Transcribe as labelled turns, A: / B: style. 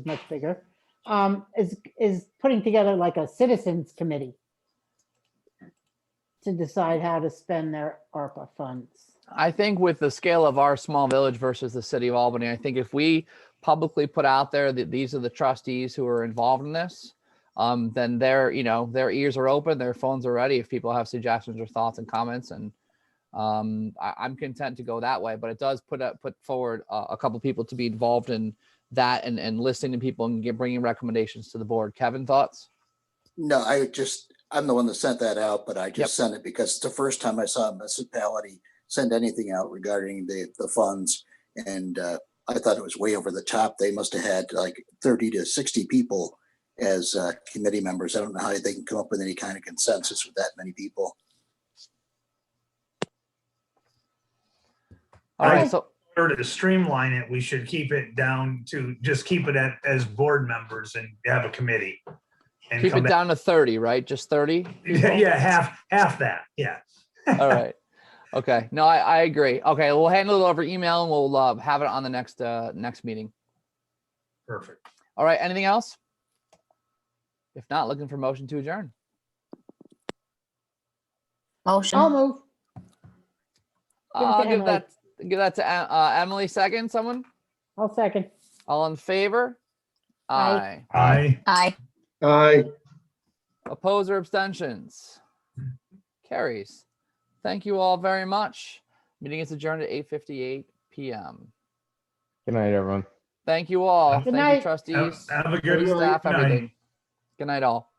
A: is much bigger, um, is, is putting together like a citizens committee to decide how to spend their ARPA funds.
B: I think with the scale of our small village versus the city of Albany, I think if we publicly put out there that these are the trustees who are involved in this, um, then their, you know, their ears are open, their phones are ready if people have suggestions or thoughts and comments and um, I, I'm content to go that way, but it does put up, put forward a, a couple people to be involved in that and, and listening to people and get, bringing recommendations to the board. Kevin, thoughts?
C: No, I just, I'm the one that sent that out, but I just sent it because it's the first time I saw a municipality send anything out regarding the, the funds. And uh, I thought it was way over the top. They must have had like thirty to sixty people as uh, committee members. I don't know how they can come up with any kind of consensus with that many people.
B: All
D: I-
B: right, so,
D: order to streamline it, we should keep it down to, just keep it at, as board members and have a committee. and
B: keep
D: come
B: it
D: back.
B: down to thirty, right? Just thirty?
D: Yeah, half, half that, yeah.
B: All right. Okay. No, I, I agree. Okay. We'll handle it over email and we'll uh, have it on the next, uh, next meeting.
D: Perfect.
B: All right. Anything else? If not, looking for motion to adjourn.
A: I'll
E: Motion.
A: move. Give it to
B: I'll give
A: Emily.
B: that, give that to Em- uh, Emily second, someone?
A: I'll second.
B: All in favor?
A: Aye.
B: Aye.
D: Aye.
E: Aye.
F: Aye.
B: Oppose or abstentions? Carries. Thank you all very much. Meeting is adjourned at eight fifty-eight PM.
G: Good night, everyone.
B: Thank you all.
A: Good
B: Thank you
A: night.
B: trustees.
D: Have have a
B: Good
D: good
B: staff,
D: night.
B: everything. Good night, all.